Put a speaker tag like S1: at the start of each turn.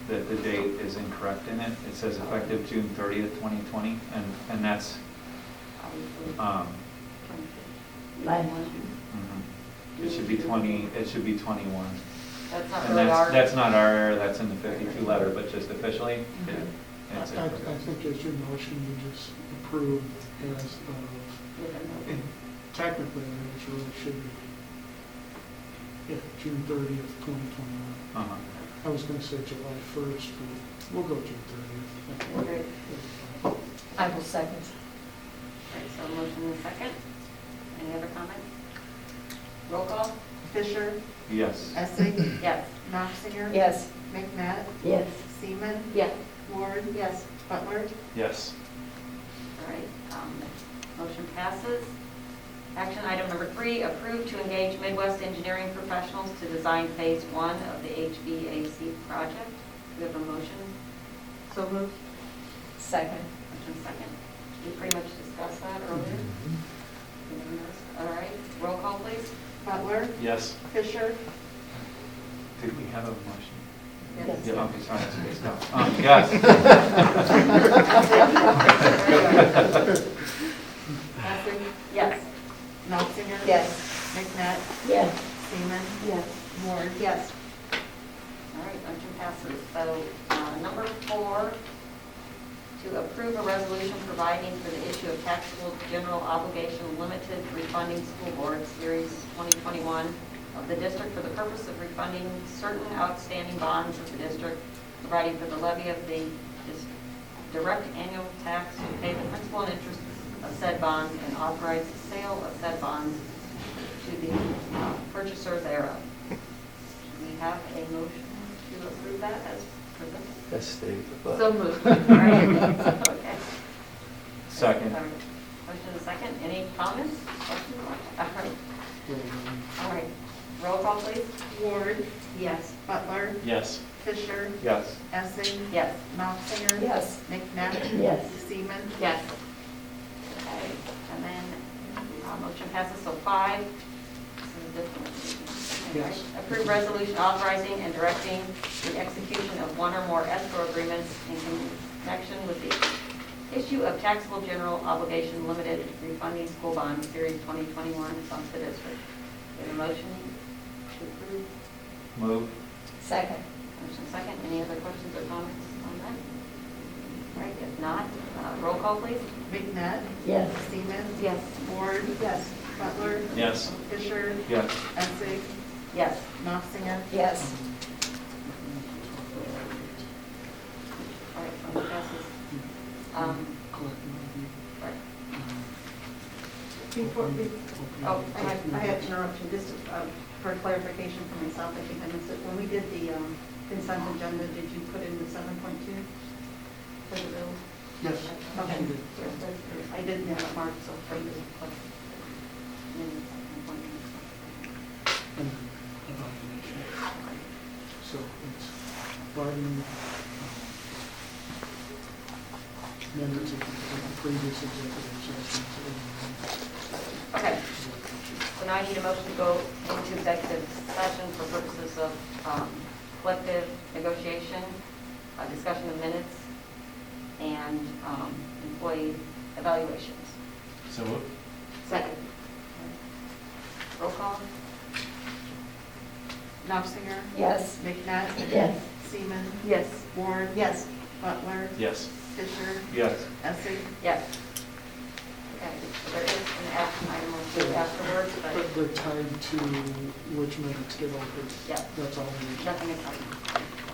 S1: that the date is incorrect in it. It says effective June thirtieth, twenty twenty, and, and that's, um,
S2: Bye.
S1: mhm. it should be twenty, it should be twenty-one.
S3: That's not
S1: And
S3: really our.
S1: that's, that's not our error, that's in the fifty-two letter, but just officially, it-
S3: Mhm.
S4: I,
S1: it's
S4: I
S1: incorrect.
S4: I think it's your motion to just approve as of, and technically, it really should be, yeah, June thirtieth, twenty twenty-one.
S1: Uh-huh.
S4: I was gonna say July first, but we'll go June
S3: Okay.
S4: thirtieth.
S2: I will second.
S3: Right, so motion in second. Any other comments? Roll call?
S5: Fisher,
S1: Yes.
S5: Essing,
S3: Yes.
S5: Knopfinger.
S2: Yes.
S5: McNabb,
S2: Yes.
S5: Seaman,
S2: Yes.
S5: Ward. Yes. Butler.
S1: Yes.
S3: All right, um, motion passes. Action item number three, approve to engage Midwest Engineering Professionals to design phase one of the HVAC project. Do we have a motion?
S5: So moved.
S2: Second.
S3: Motion second. We pretty much discussed that earlier. Anyone else? All right, roll call, please.
S5: Butler,
S1: Yes.
S5: Fisher,
S1: Did we have a motion?
S2: Yes.
S1: Yeah, okay, sorry, that's okay, stop. Um, Yes.
S3: Patrick? Yes.
S5: Knopfinger.
S2: Yes.
S5: McNabb,
S2: Yes.
S5: Seaman,
S2: Yes.
S5: Ward.
S3: Yes. All right, motion passes. So uh, number four, to approve a resolution providing for the issue of taxable general obligation limited refunding school board series 2021 of the district for the purpose of refunding certain outstanding bonds of the district, providing for the levy of the dis- direct annual tax to pay the principal and interest of said bonds and authorize the sale of said bonds to the uh, purchaser thereof. Do we have a motion to approve that as presented?
S6: That's Steve.
S3: So moved. All right. Okay.
S1: Second.
S3: All right. Motion and a second. Any comments? Questions? All right. All right. Roll call, please.
S5: Ward,
S3: Yes.
S5: Butler,
S1: Yes.
S5: Fisher,
S1: Yes.
S5: Essing,
S3: Yes.
S5: Knopfinger.
S2: Yes.
S5: McNabb.
S2: Yes.
S5: Seaman.
S3: Yes. Okay, and then, uh, motion passes, so five. This is a different one.
S4: Yes.
S3: Approve resolution authorizing and directing the execution of one or more escrow agreements in connection with the issue of taxable general obligation limited refunding school bond series 2021 funds to district. Is there a motion to approve?
S1: Move.
S2: Second.
S3: Motion second, any other questions or comments on that? All right, if not, uh, roll call, please.
S5: McNabb,
S2: Yes.
S5: Seaman,
S3: Yes.
S5: Ward. Yes. Butler.
S1: Yes.
S5: Fisher,
S1: Yes.
S5: Essing,
S3: Yes.
S5: Knopfinger.
S2: Yes.
S3: All right, motion passes. Um, Right.
S7: Before we-
S3: oh,
S7: I had, I had an interruption, just um, for clarification for myself, I think I missed it. When we did the um, consent agenda, did you put in the seven point two for the bills?
S4: Yes.
S7: Okay.
S4: you did.
S7: I didn't have it marked, so for you.
S4: And then evaluation. So it's bargaining. um, Members of the previous executive sessions.
S3: Okay,
S4: and-
S3: so now I need a motion to go into executive session for purposes of um, collective negotiation, uh, discussion of minutes, and um, employee evaluations.
S1: So
S3: Second. Roll call?
S5: Knopfinger.
S2: Yes.
S5: McNabb.
S2: Yes.
S5: Seaman,
S3: Yes.
S5: Ward.
S7: Yes.
S5: Butler.
S1: Yes.
S5: Fisher,
S1: Yes.
S5: Essing,
S3: Yes. Okay, so there is an action item or two afterwards, but
S4: But they're tied to which minutes get altered.
S3: Yeah.
S4: That's all we need.
S3: nothing is happening.